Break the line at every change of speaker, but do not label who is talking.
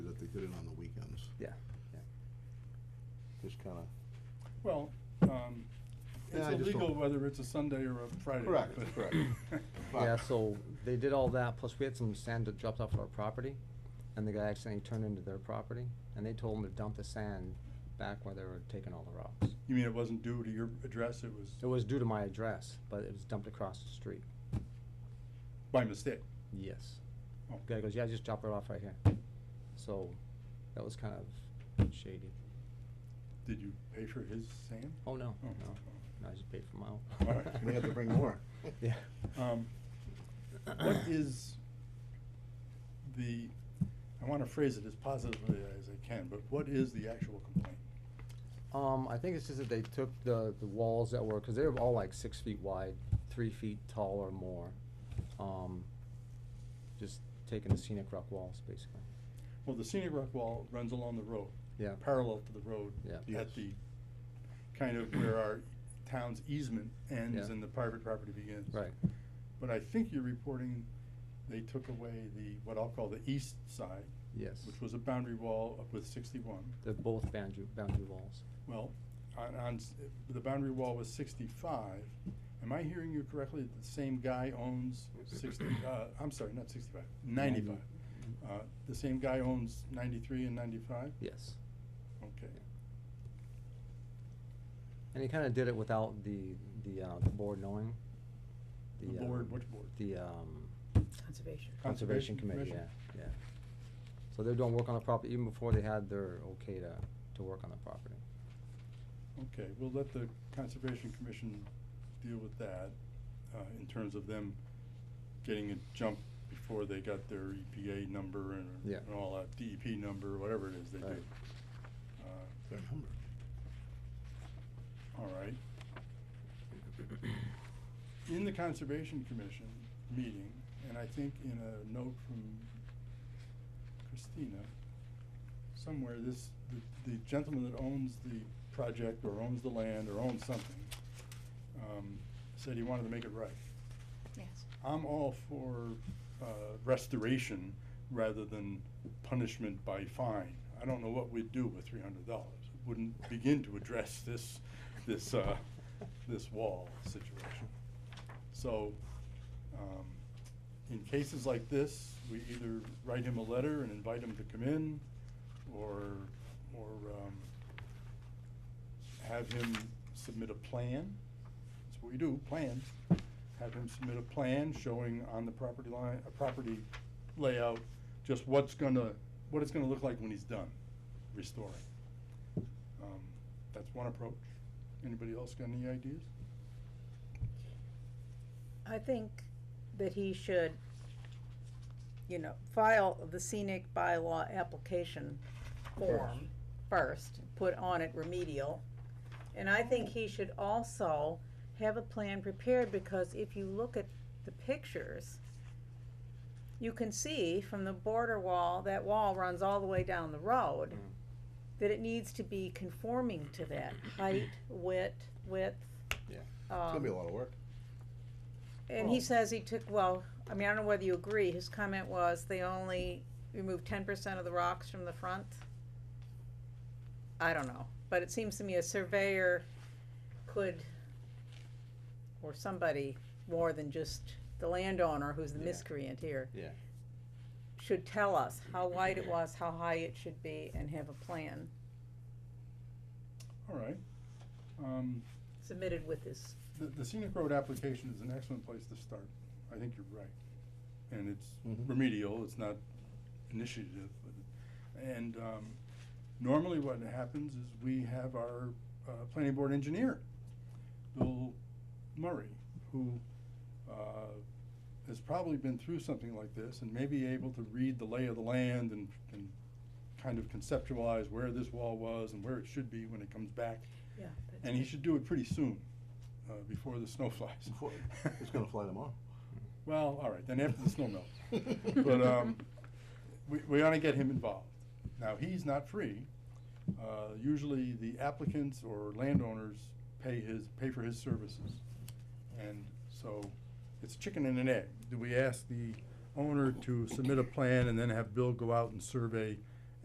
just kinda,
Well, um,
Yeah,
it's
I just
illegal
don't-
whether it's a Sunday or a Friday.
Correct,
but-
correct. Right.
Yeah, so they did all that, plus we had some sand that dropped off our property, and the guy accidentally turned into their property, and they told him to dump the sand back where they were taking all the rocks.
You mean it wasn't due to your address, it was
It was due to my address, but it was dumped across the street.
by mistake?
Yes.
Oh.
Guy goes, yeah, just drop it off right here. So, that was kind of shady.
Did you pay for his sand?
Oh, no,
Oh.
no, no, I just paid for my own.
All right.
we have to bring more.
Yeah.
Um, What is the, I want to phrase it as positively as I can, but what is the actual complaint?
Um, I think it's just that they took the, the walls that were, cause they were all like six feet wide, three feet tall or more. Um, just taking the scenic rock walls, basically.
Well, the scenic rock wall runs along the road.
Yeah.
Parallel to the road.
Yeah.
At
Yes.
the, kind of where our town's easement ends
Yeah.
and the private property begins.
Right.
But I think you're reporting they took away the, what I'll call the east side,
Yes.
which was a boundary wall up with sixty-one.
They're both boundary, boundary walls.
Well, on, on, s- the boundary wall was sixty-five. Am I hearing you correctly, that the same guy owns sixty, uh, I'm sorry, not sixty-five, ninety-five? Uh, the same guy owns ninety-three and ninety-five?
Yes.
Okay.
And he kinda did it without the, the, uh, the board knowing.
The
um,
board, which board?
The, um,
Conservation.
Conservation Committee, yeah,
Commission?
yeah. So they're doing work on the property even before they had their okay to, to work on the property.
Okay, we'll let the Conservation Commission deal with that, uh, in terms of them getting a jump before they got their EPA number and,
Yeah.
and all that, DEP number, whatever it is they do.
Right.
Uh,
Their number.
all right. In the Conservation Commission meeting, and I think in a note from Christina, somewhere, this, the- the gentleman that owns the project or owns the land or owns something, um, said he wanted to make it right.
Yes.
I'm all for, uh, restoration rather than punishment by fine. I don't know what we'd do with three hundred dollars. It Wouldn't begin to address this, this, uh, this wall situation. So, um, in cases like this, we either write him a letter and invite him to come in, or, or, um, have him submit a plan. That's what we do, plans. Have him submit a plan showing on the property line, a property layout, just what's gonna, what it's gonna look like when he's done restoring. Um, That's one approach. Anybody else got any ideas?
I think that he should, you know, file the scenic bylaw application form first, put on it remedial. And I think he should also have a plan prepared, because if you look at the pictures, you can see from the border wall, that wall runs all the way down the road,
Mm.
that it needs to be conforming to that height, width, width.
Yeah.
It's gonna be a
um,
lot of work.
and
Well-
he says he took, well, I mean, I don't know whether you agree, his comment was they only removed ten percent of the rocks from the front. I don't know, but it seems to me a surveyor could, or somebody more than just the landowner who's the
Yeah.
miscreant here,
Yeah.
should tell us how wide it was, how high it should be, and have a plan
All right. Um,
submitted with this.
The, the scenic road application is an excellent place to start. I think you're right. And it's
Mhm.
remedial, it's not initiative. And, um, normally what happens is we have our, uh, planning board engineer, Bill Murray, who, uh, has probably been through something like this and may be able to read the lay of the land and, and kind of conceptualize where this wall was and where it should be when it comes back.
Yeah.
And he should do it pretty soon, uh, before the snow flies.
Before- It's gonna fly tomorrow.
Well, all right, then after the snow melts. But, um, we, we ought to get him involved. Now, he's not free. Uh, usually the applicants or landowners pay his, pay for his services. And so it's chicken and an egg. Do we ask the owner to submit a plan and then have Bill go out and survey